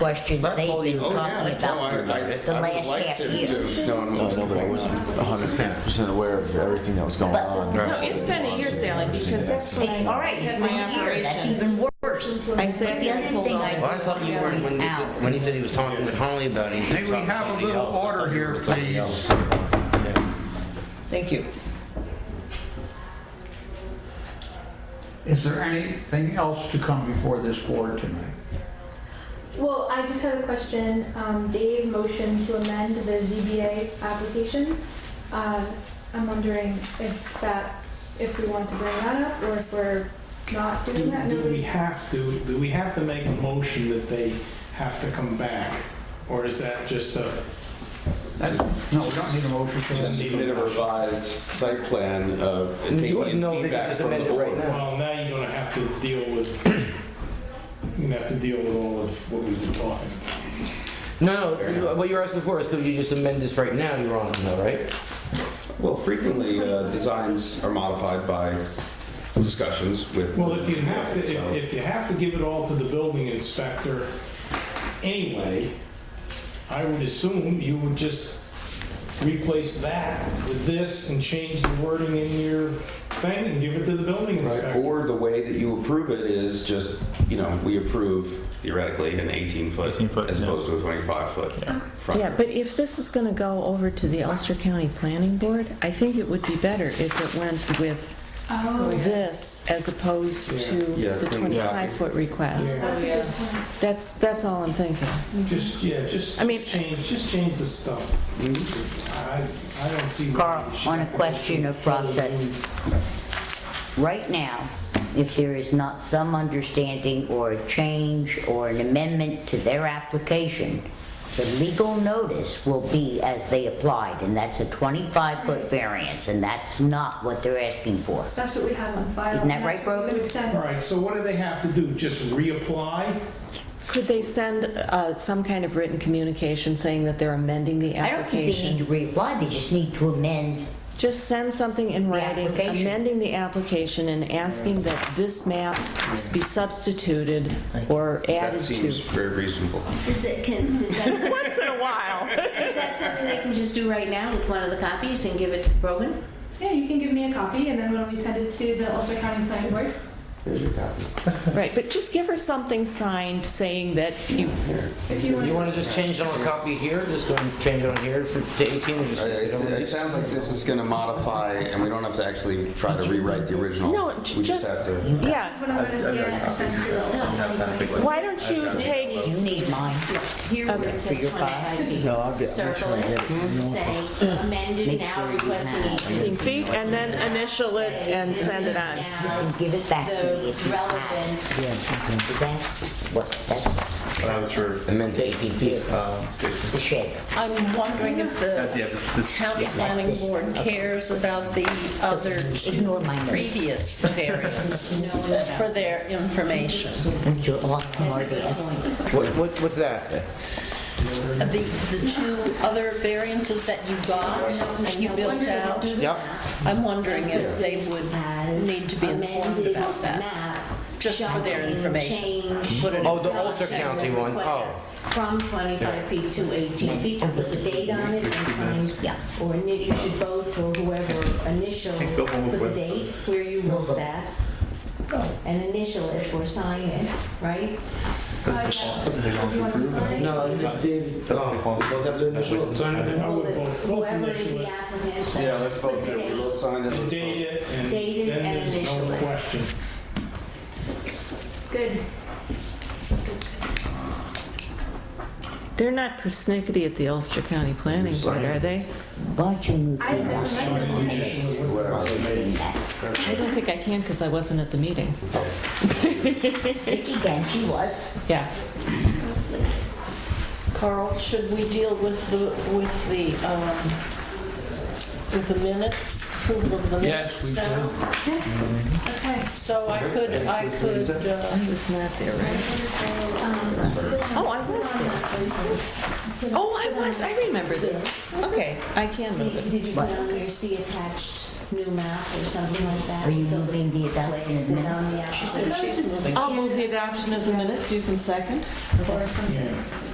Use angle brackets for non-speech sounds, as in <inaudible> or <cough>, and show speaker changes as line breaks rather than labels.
question
Not
they've been
holding-
talking
oh, yeah, no, I- I-
about. the
I would
last
like
half
to-
year.
to know
No,
what's
no, but I
going
wasn't
on.
100% aware of everything that was going
But-
on.
No, it's been a year, Sally, because that's when
It's, all
I
right, it's
had
been
my
a year, that's
operation.
even worse.
I sat
But
there and pulled
The
all
only
that
thing I
Well, I thought you were, when he said, when he said he was talking with Holly about it. he was
May we
talking to
have a
somebody
little
else. I thought
order
you were
here,
somebody
please?
else.
Thank you.
Is there anything else to come before this board tonight?
Well, I just had a question. Um, Dave motioned to amend the ZBA application. Uh, I'm wondering if that, if we want to bring that up or if we're not
Do
doing that.
do we
Nobody-
have to, do we have to make a motion that they have to come back? Or is that just a,
That- No, we don't need a motion for
Just
that.
submit a revised site plan uh, and take
You-
any
no, they can
feedback
just
from the
amend it right
board.
now.
well, now you're gonna have to deal with, you're gonna have to deal with all of what we've been talking.
No, no, what you were asking before is could you just amend this right now, you're on, though, right?
Well, frequently, uh, designs are modified by discussions with.
Well, if you have to,
So-
if, if you have to give it all to the building inspector anyway, I would assume you would just replace that with this and change the wording in your thing and give it to the building
Right,
inspector.
Or the way that you approve it is just, you know, we approve theoretically an 18-foot
18-foot,
as
yeah.
opposed to a 25-foot front.
Yeah, but if this is going to go over to the Ulster County Planning Board, I think it would be better if it went with
Oh,
this as opposed to
Yeah,
the
I think-
25-foot request.
that's Oh, a good point.
That's, that's all I'm thinking.
Just, yeah, just
I mean-
change, just change the stuff.
Mm-hmm.
I, I don't see. why
Carl,
we should
on a
have to go
question of
through the whole
process.
thing.
Right now, if there is not some understanding or a change or an amendment to their application, the legal notice will be as they applied, and that's a 25-foot variance, and that's not what they're asking for.
That's what we have on file.
Isn't that
and
right,
that's what we
Brogan?
would send.
All right, so what do they have to do? Just reapply?
Could they send uh, some kind of written communication saying that they're amending the
I don't think they need to
application?
reapply, they just need to amend.
Just send something in writing
application.
amending the application and asking that this map be substituted or
That
added
seems
to.
very reasonable.
Is it, can, is that,
Once in a while.
is that something they can just do right now with one of the copies and give it to Brogan?
Yeah, you can give me a copy and then when we send it to the Ulster County Planning Board,
There's your copy.
Right, but just give her something signed saying that you,
if you want.
You wanna just change it on a copy here, just go and change it on here for to eighteen, and just.
All right, It it sounds like this is going to modify, and we don't have to actually try to rewrite the original.
No, j-
We just have
just-
to.
yeah.
What I'm gonna scan and send to the Ulster County Planning Board.
Why don't you take,
You need mine.
Here where it
For
says
your file?
25 feet.
No, I'll get- I'll make
Circle
sure I get it from
it,
the
say amended
Make
now
sure you
requesting
have
18
18 feet and then initial it and send it
And
on?
Now,
give it back to me
the
if you have.
relevant
Yeah, that's what, that's
That's for. um, Amend to eighteen feet.
the shed.
I'm wondering if
Uh,
the
Yeah, this- this-
county
planning board
cares about the uh, other
Ignore my notes.
previous
<laughs>
variances for their information.
Aren't you all smartass?
What, what, what's that?
The, the two other variances that you got and you built out,
Yep.
I'm wondering if they would need to be informed about that, just for their information. Put it-
Oh, the Ulster County one. Oh.
From 25 feet to 18 feet, and put the date on it and sign,
Yeah.
or Nitty should both, or whoever initial
go home
for
with
the
Webster's.
date where you wrote that, and initial it or sign it, right?
Do Oh, you want to sign?
No, David, oh, we both have to initial it.
Sign it, I would
Well,
both- both
Whoever is
initial
the
it.
applicant.
Yeah, let's vote
put the
that we
date.
both signed it. let's vote.
Date it and
Date it
then
and
there's
initial
no
it.
question.
Good.
They're not persnickety at the Ulster County Planning Board, are they?
Why don't you move
I have
your
never
motion?
met this man.
I don't think I can because I wasn't at the meeting.
Vicky Genchi was.
Yeah.
Carl, should we deal with the, with the, um, with the minutes, approval of the minutes now?
Okay.
So I could, I could, uh,
I was not there, right? Oh, I was there. Oh, I was, I remember this. Okay, I can move
See-
it.
Did you put on your C attached
new map or something like that.
Are you
so
moving the adoption
it's
of
on the
minutes?
outside.
She said she's moving.
I'll move the adoption of the minutes, you can second.
Or something.
Yeah.